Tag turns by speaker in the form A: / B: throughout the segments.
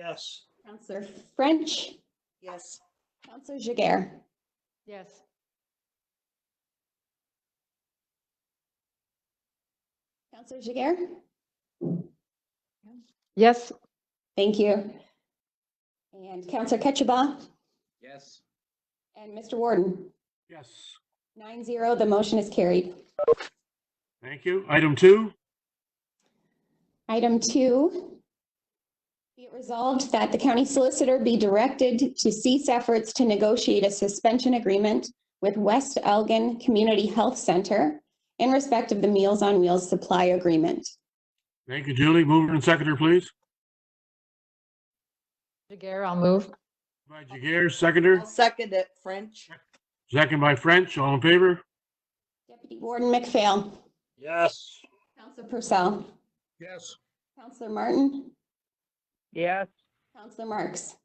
A: Yes.
B: Counselor French,
C: Yes.
B: Counselor Jiguer.
D: Yes.
B: Counselor Jiguer?
D: Yes.
B: Thank you. And Counselor Ketchiba
E: Yes.
B: and Mr. Warden.
A: Yes.
B: Nine zero, the motion is carried.
A: Thank you. Item two,
B: Item two. Be it resolved that the county solicitor be directed to cease efforts to negotiate a suspension agreement with West Elgin Community Health Center in respect of the Meals on Wheels supply agreement.
A: thank you, Julie. Mover and seconder, please.
D: Jagger, I'll move.
A: By Jagger, seconder,
C: I'll second it, French.
A: second by French, all in favor?
B: Deputy Warden McPhail.
A: Yes.
B: Counselor Purcell.
E: Yes.
B: Counselor Martin.
D: Yes.
B: Counselor Marks.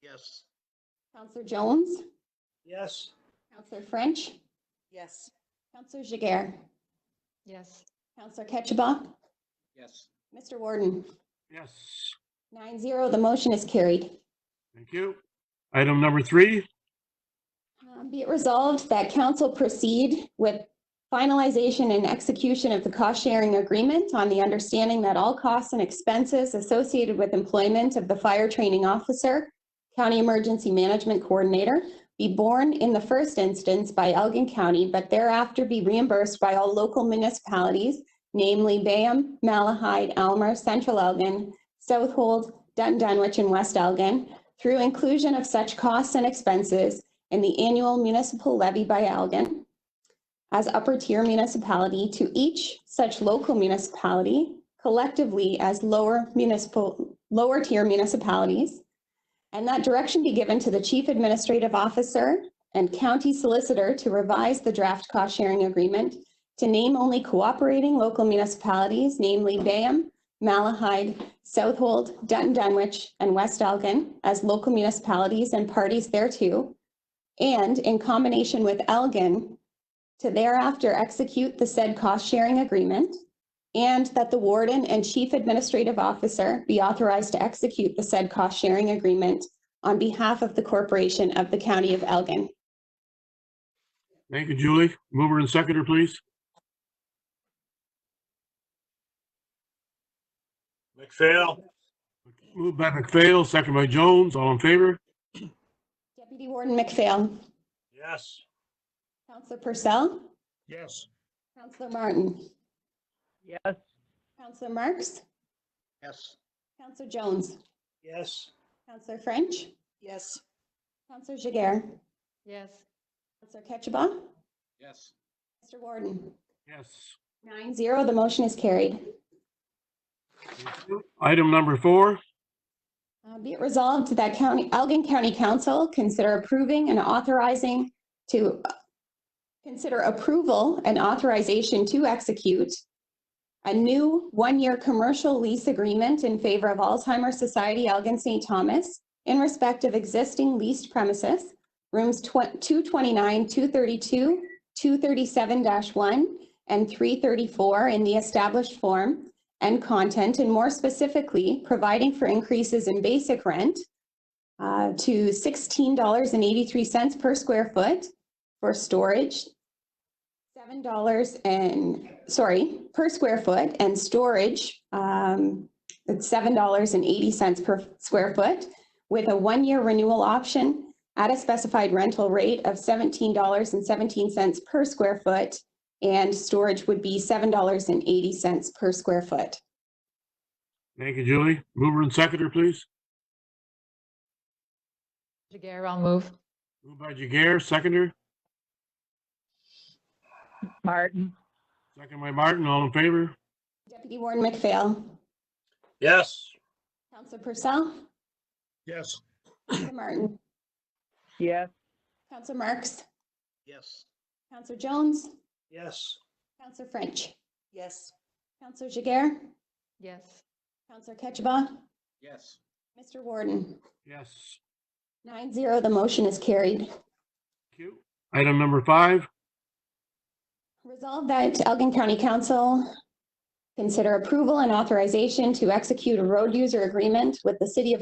E: Yes.
B: Counselor Jones.
A: Yes.
B: Counselor French.
C: Yes.
B: Counselor Jiguer.
D: Yes.
B: Counselor Ketchiba.
E: Yes.
B: Mr. Warden.
A: Yes,
B: Nine zero, the motion is carried.
A: thank you. Item number three,
B: Um, Be it resolved that council proceed with finalization and execution of the cost-sharing agreement on the understanding that all costs and expenses associated with employment of the fire training officer, county emergency management coordinator, be borne in the first instance by Elgin County, but thereafter be reimbursed by all local municipalities, namely Bayham, Malahide, Almer, Central Elgin, Southold, Dun Dunwich, and West Elgin, through inclusion of such costs and expenses and the annual municipal levy by Elgin as upper tier municipality to each such local municipality collectively as lower municipal, lower tier municipalities. And that direction be given to the chief administrative officer and county solicitor to revise the draft cost sharing agreement to name only cooperating local municipalities, namely Bayham, Malahide, Southold, Dun Dunwich, and West Elgin as local municipalities and parties thereto, and in combination with Elgin, to thereafter execute the said cost-sharing agreement, and that the warden and chief administrative officer be authorized to execute the said cost-sharing agreement on behalf of the corporation of the county of Elgin.
A: thank you, Julie. Mover and seconder, please.
F: McPhail?
A: Moved by McPhail, second by Jones, all in favor?
B: Deputy Warden McPhail.
F: Yes.
B: Counselor Purcell.
E: Yes.
B: Counselor Martin.
D: Yes.
B: Counselor Marks.
E: Yes.
B: Counselor Jones.
F: Yes.
B: Counselor French.
C: Yes.
B: Counselor Jiguer.
D: Yes.
B: Counselor Ketchiba.
E: Yes.
B: Mr. Warden.
A: Yes.
B: Nine zero, the motion is carried.
A: thank you. Item number four,
B: Uh, Be it resolved that County, Elgin County Council consider approving and authorizing to uh, consider approval and authorization to execute a new one-year commercial lease agreement in favor of Alzheimer's Society Elgin St. Thomas in respect of existing leased premises, rooms tw- 229, 232, 237-1, and 334 in the established form, and content, and more specifically, providing for increases in basic rent uh, to $16.83 per square foot for storage, $7 and, sorry, per square foot, and storage, um, it's $7.80 per square foot, with a one-year renewal option at a specified rental rate of $17.17 per square foot, and storage would be $7.80 per square foot.
A: thank you, Julie. Mover and seconder, please.
D: Jagger, I'll move.
A: Moved by Jagger, seconder,
D: Martin.
A: second by Martin, all in favor?
B: Deputy Warden McPhail.
F: Yes.
B: Counselor Purcell.
E: Yes.
B: Counselor Martin.
D: Yes.
B: Counselor Marks.
E: Yes.
B: Counselor Jones.
F: Yes.
B: Counselor French.
C: Yes.
B: Counselor Jiguer.
D: Yes.
B: Counselor Ketchiba.
E: Yes.
B: Mr. Warden.
A: Yes.
B: Nine zero, the motion is carried.
A: Thank you. Item number five,
B: Resolved that Elgin County Council consider approval and authorization to execute a road user agreement with the City of